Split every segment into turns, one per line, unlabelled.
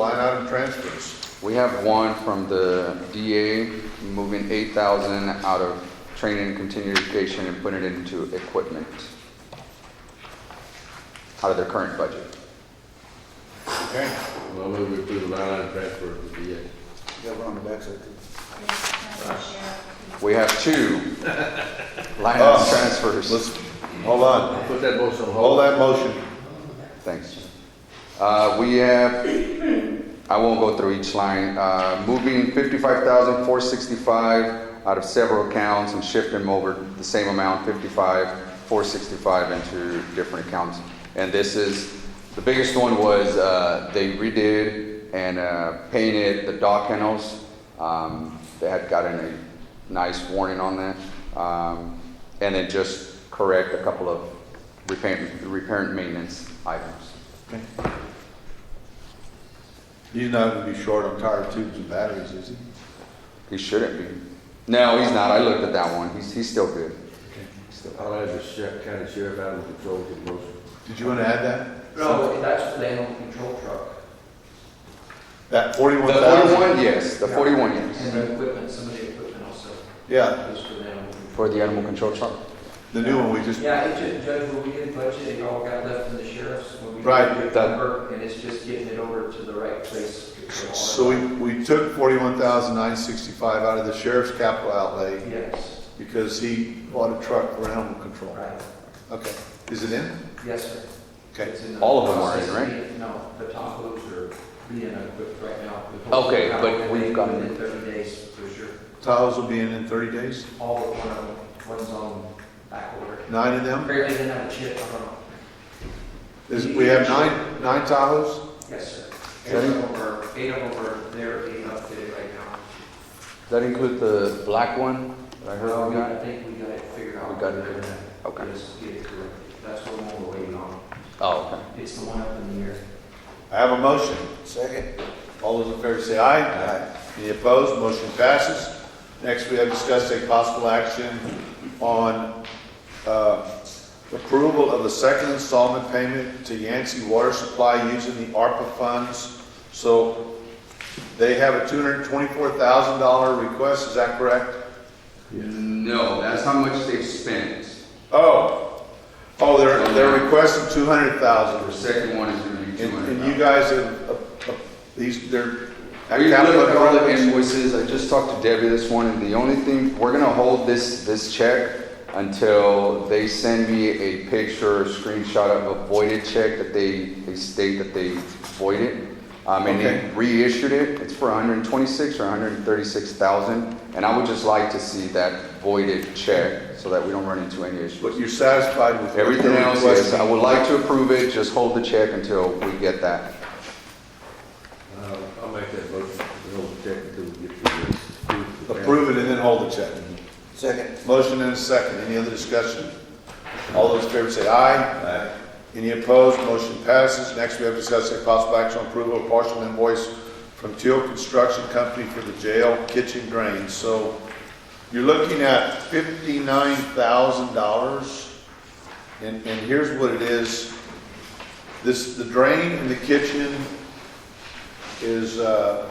Line item transfers.
We have one from the DA moving eight thousand out of training and continuing education and putting it into equipment. Out of their current budget.
Okay,
Well, I'll move to the line item transfer to the DA.
Got one on the backside too.
We have two line item
Oh.
transfers.
let's, hold on,
Put that motion on
hold
hold.
that motion.
Thanks. Uh, we have, I won't go through each line, uh, moving fifty-five thousand, four sixty-five out of several accounts and shifting them over the same amount, fifty-five, four sixty-five into different accounts. And this is, the biggest one was, uh, they redid and, uh, painted the dog kennels. Um, they had gotten a nice warning on that. Um, and then just correct a couple of repair, repair and maintenance items.
He's not gonna be short on tire tubes and batteries, is he?
He shouldn't be. No, he's not. I looked at that one. He's, he's still good. He's still-
I'll add the sheriff, county sheriff out of control to the motion.
Did you wanna add that?
No, that's the animal control truck.
That
The Mm-hmm.
forty-one thousand?
forty-one, yes, the forty-one, yes.
And the equipment, some of the equipment also
Yeah,
goes for the animal control.
For the animal control truck.
the new one we just,
Yeah, it just, Judge, when we did budget, it all got left in the sheriff's. when we
Right,
did
that-
work, And it's just getting it over to the right place. for all of
so
it.
we, we took forty-one thousand nine sixty-five out of the sheriff's capital outlay
Yes,
because he bought a truck for animal control.
right,
Okay, is it in?
yes, sir.
Okay,
It's in the
All of them are in,
process.
right?
No, the top loads are being equipped right now.
Okay, but we've got-
Within thirty days, for sure.
Tahoe's will be in in thirty days,
All but one of them, one's on back order.
nine of them?
Apparently they didn't have a chip on them.
Is, we have nine, nine Tahoes?
Yes, sir. Eight
Seven?
of them are, eight of them are, they're being updated right now.
Does that include the black one that I heard we
I
got?
think we got it figured out.
We got it figured out. Okay.
Just get it corrected. That's what we're waiting on.
Oh, okay.
It's the one up in the air.
I have a motion.
Second.
All those in favor say aye. Aye. Any opposed? Motion passes. Next, we have discussed take possible action on uh, approval of the second installment payment to Yancey Water Supply using the ARPA funds. So they have a $224,000 request, is that correct?
No, that's how much they spent.
Oh, oh, they're, they're requesting $200,000.
second one is gonna be
And and you guys have, uh, uh, these, they're.
We looked at all the invoices, I just talked to Debbie this morning, the only thing, we're gonna hold this, this check until they send me a picture, or screenshot of a voided check that they, they state that they voided. Um, and
Okay.
they reissued it, it's for hundred and twenty-six or hundred and thirty-six thousand, and I would just like to see that voided check, so that we don't run into any
But
issues.
you're satisfied with
Everything
they're
else, yes,
requesting?
I would like to approve it, just hold the check until we get that.
Uh, I'll make that motion, we'll hold the check until we get to the.
Approve it and then hold the check.
Second.
Motion and a second. Any other discussion? All those in favor say aye. Aye. Any opposed? Motion passes. Next, we have discussed a possible action on approval of partial invoice from Teal Construction Company for the jail kitchen drains. So you're looking at fifty-nine thousand dollars. And, and here's what it is. This, the drain in the kitchen is, uh,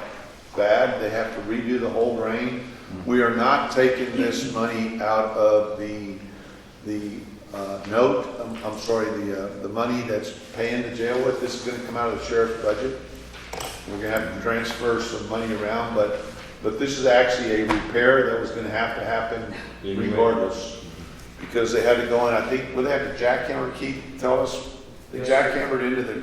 bad. They have to redo the whole drain. We are not taking this money out of the, the, uh, note, I'm, I'm sorry, the, uh, the money that's paying the jail with. This is gonna come out of the sheriff's budget. We're gonna have to transfer some money around, but, but this is actually a repair that was gonna have to happen
Anyway.
regardless. Because they had to go in, I think, well, they had to jackhammer, Keith, tell us, they jackhammered into the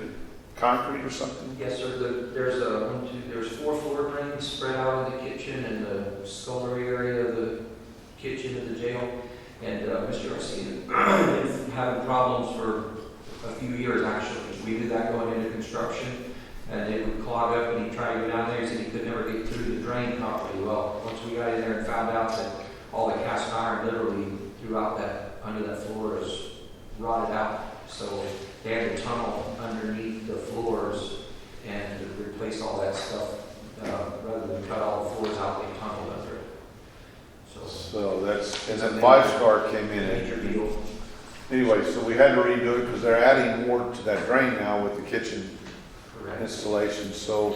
concrete or something?
Yes, sir, the- there's a, one, two, there's four floor drains spread out in the kitchen and the scullery area of the kitchen of the jail. And uh, Mr. Arcina, been having problems for a few years actually, because we did that going into construction. And it would clog up and he'd try to go down there, he said he could never get through the drain properly. Well, once we got in there and found out that all the cast iron literally throughout that, under that floor is rotted out. So they had a tunnel underneath the floors and to replace all that stuff, uh, rather than cut all the floors out, they tunneled under it. So,
So that's, and then Five Star came in and
major deal.
Anyway, so we had to redo it because they're adding more to that drain now with the kitchen
Correct.
installation, so